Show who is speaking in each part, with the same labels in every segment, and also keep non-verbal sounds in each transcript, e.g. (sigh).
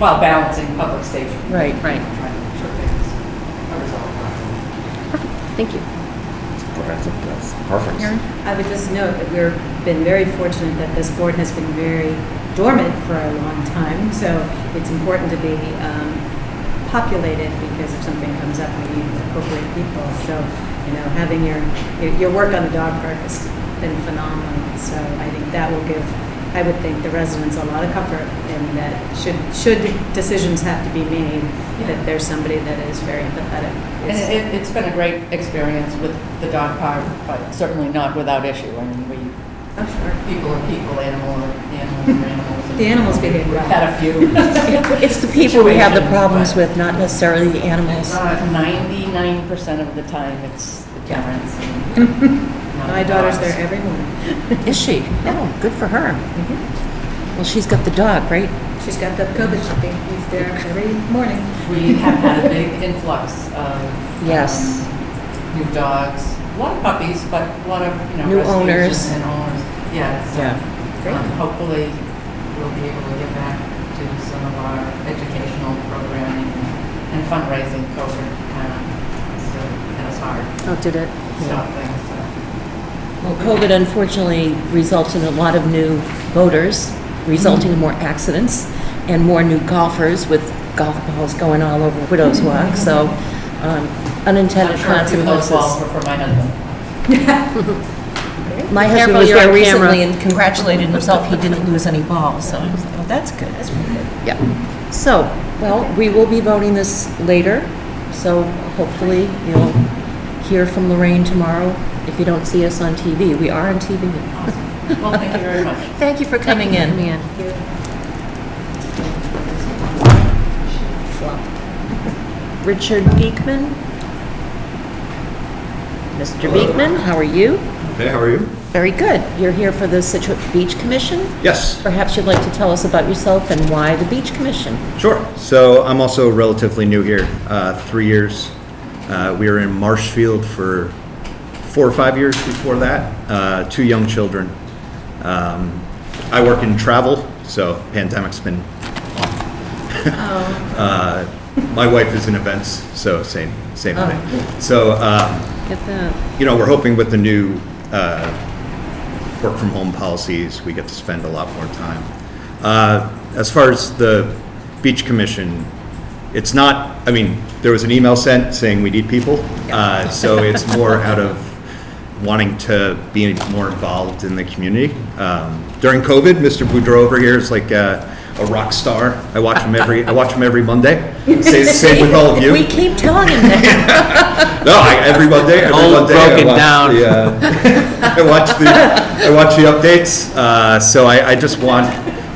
Speaker 1: while balancing public safety.
Speaker 2: Right, right.
Speaker 1: and Trying to make sure things are resolved properly.
Speaker 2: Thank you.
Speaker 3: That's, that's perfect.
Speaker 4: I would just note that we've been very fortunate that this board has been very dormant for a long time, so it's important to be um, populated because if something comes up, we need appropriate people. So, you know, having your, your- your work on the dog park has been phenomenal. So I think that will give, I would think, the residents a lot of comfort in that should, should decisions have to be made, that there's somebody that is very empathetic.
Speaker 1: And it- it, it's been a great experience with the dog park, but certainly not without issue. I mean, we,
Speaker 4: I'm sure.
Speaker 1: people are people, animal are animals are animals. and
Speaker 4: The animals behave
Speaker 1: We've
Speaker 4: well.
Speaker 1: had a few.
Speaker 2: It's the people we have the
Speaker 1: Situation,
Speaker 2: problems
Speaker 1: but-
Speaker 2: with, not necessarily the animals.
Speaker 1: Ninety-nine percent of the time, it's the parents. and not
Speaker 4: My
Speaker 1: the
Speaker 4: daughter's
Speaker 1: dogs.
Speaker 4: there every morning.
Speaker 2: Is she? Oh, good for her. Well, she's got the dog, right?
Speaker 4: She's got the COVID shipping. He's there every morning.
Speaker 1: We have had a big influx of.
Speaker 2: Yes.
Speaker 1: um, New dogs, a lot of puppies, but a lot of, you know.
Speaker 2: New
Speaker 1: rescues
Speaker 2: owners.
Speaker 1: And owners, yes.
Speaker 4: Great.
Speaker 1: Um, Hopefully, we'll be able to get back to some of our educational programming and fundraising COVID kind of, so it was hard to
Speaker 4: Oh, did it?
Speaker 1: stop things. so.
Speaker 2: Well, COVID unfortunately results in a lot of new boaters, resulting in more accidents and more new golfers with golf balls going all over Widows Walk, so um,
Speaker 1: I'm
Speaker 2: unintended
Speaker 1: sure a few of those balls
Speaker 2: consequences.
Speaker 1: were for my husband.
Speaker 2: My husband was there recently and congratulated himself, he didn't lose any balls, so I was like, well, that's good. Yeah. So, well, we will be voting this later, so hopefully you'll hear from Lorraine tomorrow if you don't see us on TV. We are on TV.
Speaker 1: Awesome. Well, thank you very much.
Speaker 2: Thank you for coming in. Richard Beekman. Mr. Beekman, how are you?
Speaker 5: Hey, how are you?
Speaker 2: Very good. You're here for the Situate Beach Commission.
Speaker 5: Yes,
Speaker 2: Perhaps you'd like to tell us about yourself and why the Beach Commission?
Speaker 5: sure. So I'm also relatively new here, uh, three years. Uh, we were in Marshfield for four or five years before that, uh, two young children. Um, I work in travel, so pandemic's been (laughs) Uh, my wife is in events, so same, same thing. So, um,
Speaker 2: Get that.
Speaker 5: you know, we're hoping with the new uh, work from home policies, we get to spend a lot more time. Uh, As far as the beach commission, it's not, I mean, there was an email sent saying we need people. Uh, So it's more out of wanting to be more involved in the community. Um, During COVID, Mr. Boudreau over here is like uh, a rock star. I watch him every, I watch him every Monday. Same same with all of you.
Speaker 2: We keep telling him that. (laughs)
Speaker 5: No, I, every Monday, every
Speaker 3: All
Speaker 5: Monday
Speaker 3: broken
Speaker 5: I watch
Speaker 3: down.
Speaker 5: the, uh, (laughs) I watch the, I watch the updates. Uh, so I, I just want,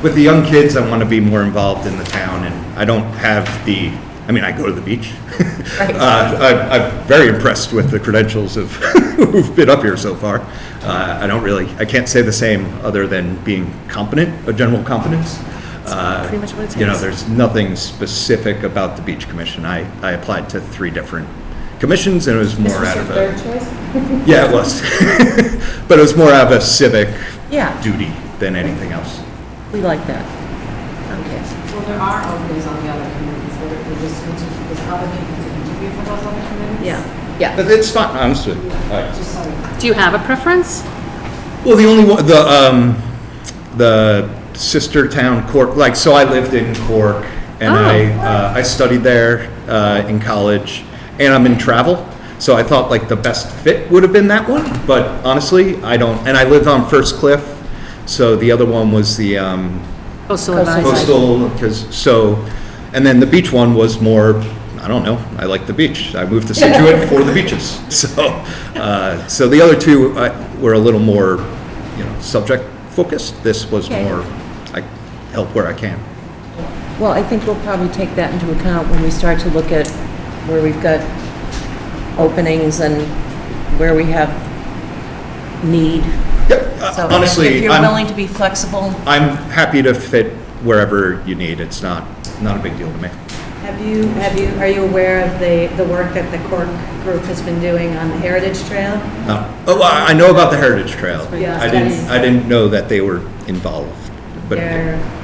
Speaker 5: with the young kids, I want to be more involved in the town, and I don't have the. I mean, I go to the beach. (laughs) Uh, I, I'm very impressed with the credentials of (laughs) who've been up here so far. Uh, I don't really, I can't say the same other than being competent, a general competence. Uh,
Speaker 2: pretty much what it
Speaker 5: You know,
Speaker 2: is.
Speaker 5: there's nothing specific about the beach commission. I, I applied to three different commissions and it was more out of a,
Speaker 4: choice?
Speaker 5: yeah, it was. (laughs) But it was more out of a civic
Speaker 2: Yeah,
Speaker 5: duty than anything else.
Speaker 2: we like that. Okay.
Speaker 6: Well, there are openings on the other committees, there, there just, there's other people to interview for those other committees.
Speaker 4: Yeah.
Speaker 5: But it's fine, honestly. I-
Speaker 6: Just so,
Speaker 7: Do you have a preference?
Speaker 5: Well, the only one, the, um, the sister town Cork, like, so I lived in Cork and I, uh, I studied there, uh, in college and I'm in travel. So I thought like the best fit would have been that one, but honestly, I don't, and I lived on First Cliff. So the other one was the, um,
Speaker 7: Coastal
Speaker 2: Coastal
Speaker 7: advisory.
Speaker 5: coastal, because, so, and then the beach one was more, I don't know, I like the beach. I moved
Speaker 2: (laughs)
Speaker 5: to Situate for the beaches. So, uh, so the other two uh, were a little more, you know, subject focused. This was
Speaker 2: Okay.
Speaker 5: more, I help where I can.
Speaker 2: Well, I think we'll probably take that into account when we start to look at where we've got openings and where we have need.
Speaker 5: Yep, uh,
Speaker 2: So If
Speaker 5: honestly,
Speaker 2: you're willing
Speaker 5: I'm,
Speaker 2: to be flexible,
Speaker 5: I'm happy to fit wherever you need. It's not, not a big deal to me.
Speaker 4: Have you, have you, are you aware of the, the work that the Cork group has been doing on the Heritage Trail?
Speaker 5: No. Oh, I I know about the Heritage Trail.
Speaker 4: Yeah,
Speaker 5: I didn't,
Speaker 4: that's-
Speaker 5: I didn't know that they were involved, but.
Speaker 4: They're